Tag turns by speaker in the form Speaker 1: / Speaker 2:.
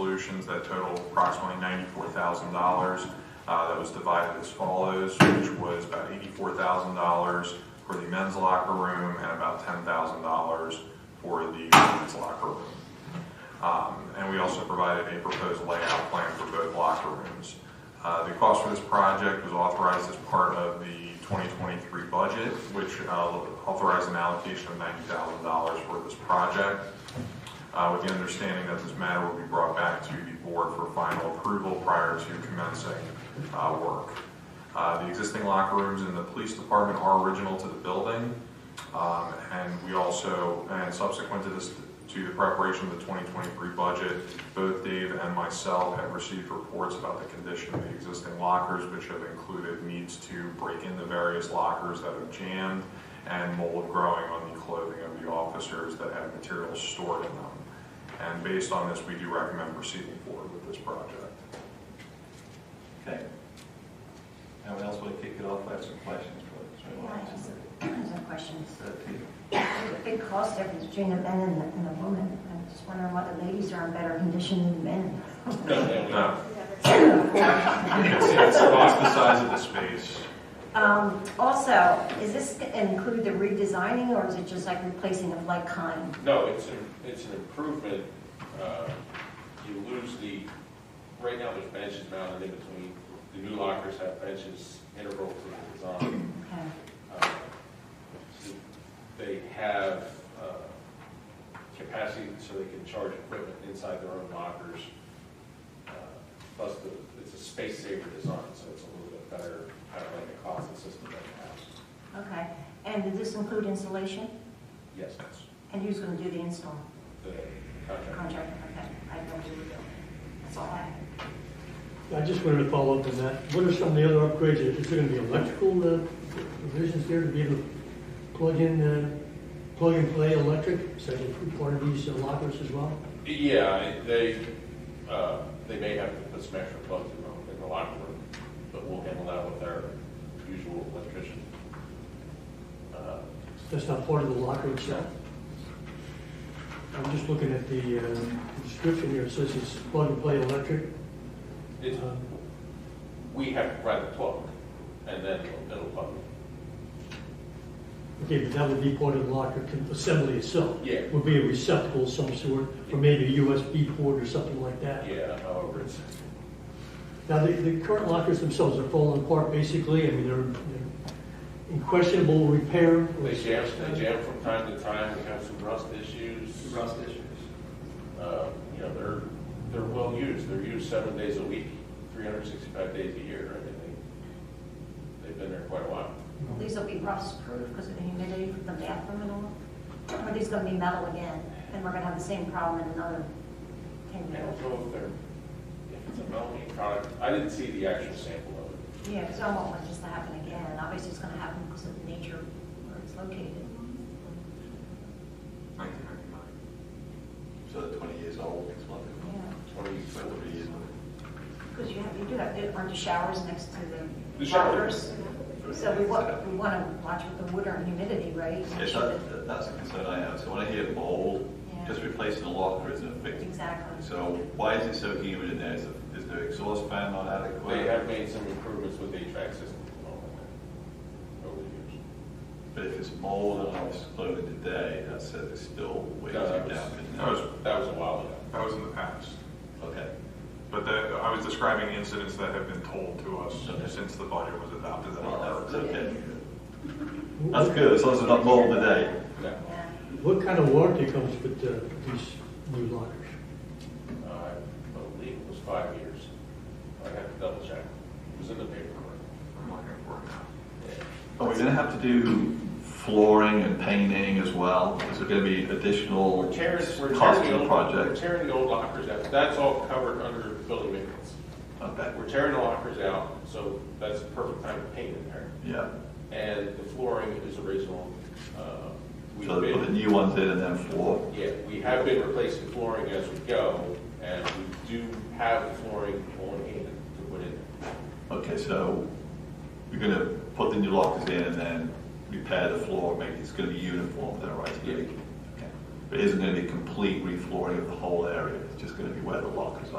Speaker 1: solutions that total approximately ninety-four thousand dollars. Uh, That was divided as follows, which was about eighty-four thousand dollars for the men's locker room and about ten thousand dollars for the women's locker room. Um, And we also provided a proposed layout plan for both locker rooms. Uh, The cost for this project was authorized as part of the 2023 budget, which uh, authorized an allocation of $90,000 for this project, uh, with the understanding that this matter will be brought back to the board for final approval prior to commencing uh, work. Uh, The existing locker rooms in the police department are original to the building. Um, And we also, and subsequent to this, to the preparation of the 2023 budget, both Dave and myself have received reports about the condition of the existing lockers, which have included needs to break into various lockers that have jammed and mold growing on the clothing of the officers that have materials stored in them. And based on this, we do recommend proceeding forward with this project.
Speaker 2: Okay. Anyone else want to kick it off, I have some questions for
Speaker 3: Yeah, I
Speaker 2: this.
Speaker 3: just- I have some questions.
Speaker 2: Uh, Peter?
Speaker 3: There's a big cost difference between the men and the, and the women. I'm just wondering why the ladies are in better condition than the men.
Speaker 1: No. It's it's about the size of the space.
Speaker 3: Um, also, is this include the redesigning or is it just like replacing of like kind?
Speaker 4: No, it's an, it's an improvement. Uh, You lose the, right now there's benches mounted in between. The new lockers have benches integral to the design.
Speaker 3: Okay,
Speaker 4: Uh, so They have uh, capacity so they can charge equipment inside their own lockers. Uh, Plus, the- it's a space saver design, so it's a little bit better, kind of like a closet system that you have.
Speaker 3: okay. And did this include installation?
Speaker 4: Yes,
Speaker 3: And who's gonna do the install?
Speaker 4: the contract.
Speaker 3: Contractor, okay. I don't do the building. That's all I have.
Speaker 5: I just wanted to follow up on that. What are some of the other upgrades? Is there going to be electrical uh, provisions there to be able to plug in, uh, plug and play electric? So that part of these uh, lockers as well?
Speaker 4: Yeah, they, uh, they may have to put some extra plugs in the, in the locker room, but we'll handle that with our usual electrician. Uh,
Speaker 5: That's not part of the locker itself? I'm just looking at the uh, description here. It says it's plug and play electric.
Speaker 4: It's,
Speaker 5: Uh,
Speaker 4: we have to provide the plug, and then it'll- it'll plug.
Speaker 5: Okay, but that would be part of the locker con- assembly itself?
Speaker 4: Yeah.
Speaker 5: Would be a receptacle of some sort, or maybe a USB port or something like that?
Speaker 4: Yeah, however, it's,
Speaker 5: Now, the, the current lockers themselves are falling apart, basically, I mean, they're they're in questionable repair.
Speaker 4: they jam, they jam from time to time, we have some rust issues.
Speaker 2: Rust issues.
Speaker 4: Uh, You know, they're, they're well used, they're used seven days a week, three hundred and sixty-five days a year, I mean, they, they've been there quite a while.
Speaker 3: These will be rust proof because of the humidity from the bathroom and all. Are these gonna be metal again? And we're gonna have the same problem in another ten
Speaker 4: I
Speaker 3: years?
Speaker 4: don't know if they're, if it's a melamine product, I didn't see the actual sample of it.
Speaker 3: Yeah, because I don't want this to happen again. Obviously, it's gonna happen because of the nature where it's located.
Speaker 1: 1999.
Speaker 2: So they're twenty years old, it's one
Speaker 3: Yeah,
Speaker 4: Twenty-four years.
Speaker 3: because you have, you do have, aren't the showers next to
Speaker 4: The
Speaker 3: the
Speaker 4: shower.
Speaker 3: lockers? So we want, we want to watch with the water and humidity, right?
Speaker 2: Yes, that- that's a concern I have, so when I hear mold,
Speaker 3: Yeah.
Speaker 2: just replacing a locker isn't fixed.
Speaker 3: Exactly.
Speaker 2: So why is it so humid in there? Is the- is the exhaust fan not adequate?
Speaker 4: They have made some improvements with the HVAC system and all that over the years.
Speaker 2: But if it's mold and I was floating today, that says uh, it's still way too
Speaker 4: No, that was-
Speaker 2: damp in
Speaker 1: that was-
Speaker 2: there.
Speaker 4: That was a while ago.
Speaker 1: That was in the past.
Speaker 2: Okay,
Speaker 1: But that, I was describing incidents that have been told to
Speaker 2: Okay.
Speaker 1: us since the budget was adopted that
Speaker 2: that's
Speaker 1: are.
Speaker 2: okay.
Speaker 5: What-
Speaker 2: That's good, as long as it's not mold today.
Speaker 4: No,
Speaker 3: Yeah.
Speaker 5: What kind of warranty comes with uh, these new lockers?
Speaker 4: uh, I believe it was five years. I have to double check. It was in the paperwork.
Speaker 1: I'm looking for it now.
Speaker 4: Yeah.
Speaker 2: Are we going to have to do flooring and painting as well? Is there going to be additional
Speaker 4: We're tearing, we're
Speaker 2: cost
Speaker 4: tearing
Speaker 2: to
Speaker 4: the
Speaker 2: the
Speaker 4: old, we're
Speaker 2: project?
Speaker 4: tearing the old lockers out. That's all covered under building maintenance.
Speaker 2: Okay,
Speaker 4: We're tearing the lockers out, so that's the perfect time to paint in there.
Speaker 2: yeah.
Speaker 4: And the flooring is original. uh, we've
Speaker 2: So they put the
Speaker 4: been-
Speaker 2: new ones in and then floor.
Speaker 4: Yeah, we have been replacing flooring as we go, and we do have the flooring on hand to put in.
Speaker 2: Okay, so you're going to put the new lockers in and then repair the floor, make, it's going to be uniform then, right? It's gonna be-
Speaker 4: Yeah.
Speaker 2: Okay. But it isn't going to be complete reflooring of the whole area? it's just gonna be where the lockers are.